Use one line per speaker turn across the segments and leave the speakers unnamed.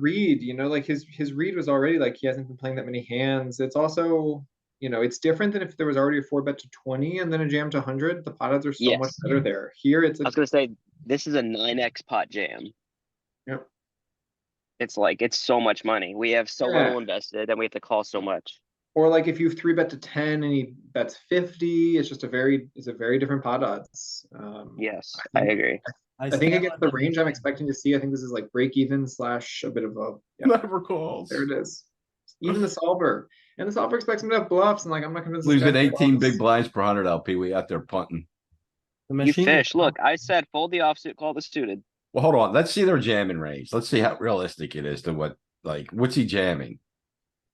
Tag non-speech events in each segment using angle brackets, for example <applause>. read, you know, like his his read was already like he hasn't been playing that many hands. It's also, you know, it's different than if there was already a four bet to twenty and then a jam to hundred. The pot odds are so much
Yes.
better there. Here, it's a,
I was gonna say this is a nine X pot jam.
Yep.
It's like it's so much money. We have so
Yeah.
little invested, and we have to call so much.
or like if you three bet to ten and he bets fifty, it's just a very it's a very different pot odds. Um,
Yes, I
think-
agree.
I think
still
against
have
the
them
range I'm
winning.
expecting to see, I think this is like break even slash a bit of a yeah,
Never calls.
there it is. Even the solver. And the solver expects him to have bluffs and like I'm not convinced. this
Leaves
guy
at
has
eighteen
bluffs.
big blinds per hundred LP. We out there punting.
The
You
machine is
fish. Look, I said fold the offsuit, call the suited.
Well, hold on. Let's see their jamming range. Let's see how realistic it is to what, like, what's he jamming?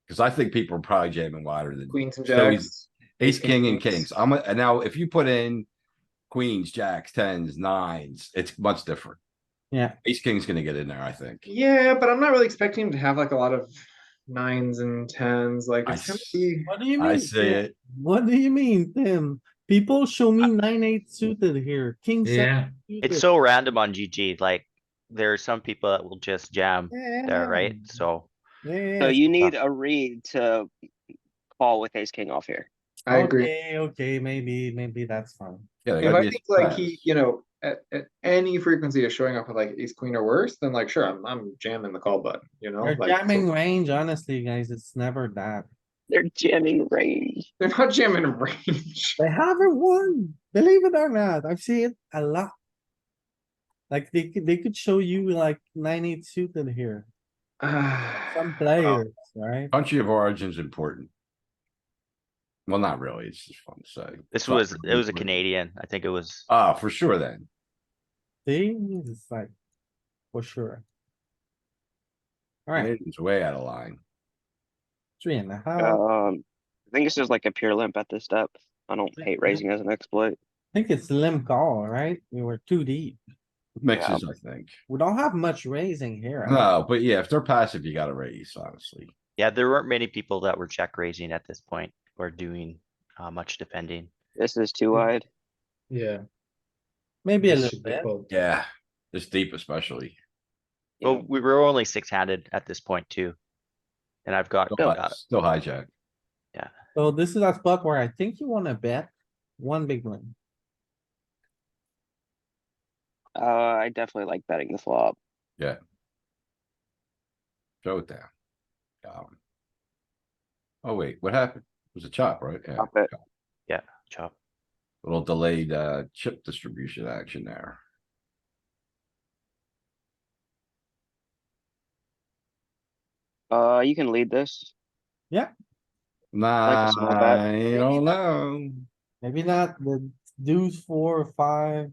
Cause I think people are probably jamming wider than
Queens and
So he's-
jacks.
ace, king and
kings.
kings. I'm, a- and now if you put in queens, jacks, tens, nines, it's much different.
Yeah.
Ace, king's gonna get in there, I think.
Yeah, but I'm not really expecting him to have like a lot of nines and tens. Like
I
it's gonna
s-
be
What do you mean?
I see
Tim?
it.
What do you mean, Tim? People show me nine, eight suited here, king. seven
Yeah.
suited.
It's so random on GG, like, there are some people that will just jam there, right?
Yeah,
So,
Yeah.
So you need a read to call with ace king off here.
I agree.
Okay, okay, maybe, maybe that's fine.
Yeah. they
If
gotta
I
be a
think like
surprise.
he, you know, at, at any frequency of showing up with like ace queen or worse, then like sure, I'm I'm jamming the call button, you know?
Your
like,
jamming range, honestly, guys, it's never that.
They're jamming range.
<laughs> They're not jamming
<laughs>
range.
They haven't won, believe it or not. I've seen it a lot. Like they could, they could show you like nine, eight suited here,
<sighs>
some players, right?
Country of origin's important. Well, not really. It's just fun to say.
this
Fuck,
was, it was a
we-
Canadian, I think it was,
Ah, for sure then.
They, it's like, for sure. Alright,
It's way out of line.
three and a half.
Um, I think this is like a pure limp at this step. I don't hate raising as an exploit.
I think it's limp call, right? We were too deep.
Mixes, I think.
We don't have much raising here. I don't-
No, but yeah, if they're passive, you gotta raise, honestly.
yeah, there weren't many people that were check raising at this point, or doing, uh, much defending.
This is too wide.
Yeah.
Maybe a
this
little
should be
bit.
called.
Yeah, this deep especially.
Yeah.
But we were only six-handed at this point too. And I've got,
Still
got
hi- Still hijack.
So this is a spot where I think you wanna bet one big one.
Uh, I definitely like betting the flop.
Throw it down. Got him. Oh, wait, what happened? It was a chop, right? Yeah,
Pop it.
chop.
little delayed, uh, chip distribution action there.
Uh, you can lead this.
Nah,
a small bet.
I don't know.
Maybe not the deuce four or five.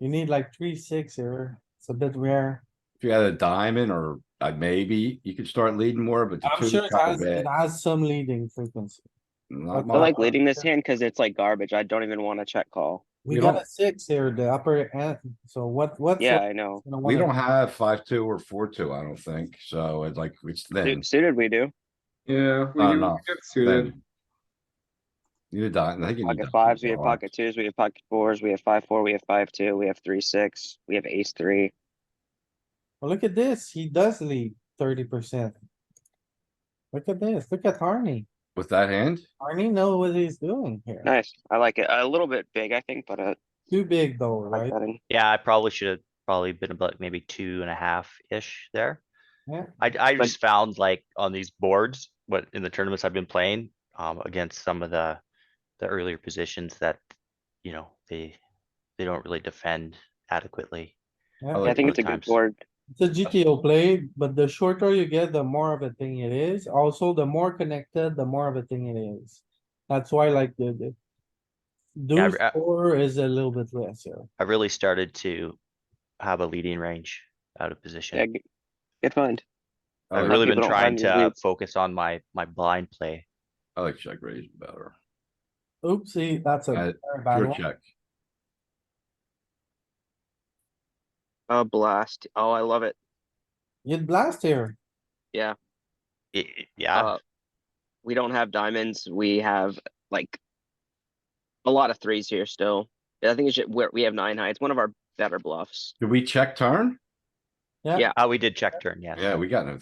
You need like three, six here. It's a bit rare.
If you had a diamond or a maybe, you could start leading more, but. the
I'm
two's
sure it
kinda
has,
bad.
it has some leading frequency.
Not
but
I like
mine.
leading this hand because it's like garbage. I don't even want to check call.
We
You
got
don't-
a six here, the upper end. So what, what's?
Yeah, I know.
We don't have five, two or four, two, I don't think, so it's like, it's thin.
Suit- Suited we do.
Yeah, we
Uh,
do,
no,
we get suited.
thin. You need a diamond, I think you need.
Pocket
diamonds
fives, we
a
have
lot.
pocket twos, we have pocket fours, we have five, four, we have five, two, we have three, six, we have ace, three.
Well, look at this. He does lead thirty percent. Look at this. Look at Harney.
With that hand?
Harney know what he's doing here.
Nice. I like it. A little bit big, I think, but uh,
Too big though,
I like
right?
betting.
Yeah, I probably should have probably been about maybe two and a half-ish there.
Yeah.
I, I just found like on these boards, what in the tournaments I've been playing, um, against some of the, the earlier positions that, you know, they, they don't really defend adequately.
Yeah.
I think it's a good
Sometimes.
board.
It's a GTO play, but the shorter you get, the more of a thing it is. Also, the more connected, the more of a thing it is. That's why like the, the.
I-
Deuce four is a little bit less here.
I really started to have a leading range out of
Yeah,
position.
g- good find.
I
I've
like-
really been
people don't
trying
find these
to
leads.
focus on my, my blind play.
I like check raise better.
Oopsie, that's
Uh,
a very bad
Pure
one.
check.
A blast. Oh, I love it.
You'd blast here.
I- I- Yeah,
Uh, We don't have diamonds. We have like a lot of threes here still. I think it's, ju- we're- we have nine high. It's one of our better bluffs.
Did we check turn?
Yeah.
Yeah.
Oh, we did check turn, yes.
Yeah, we got no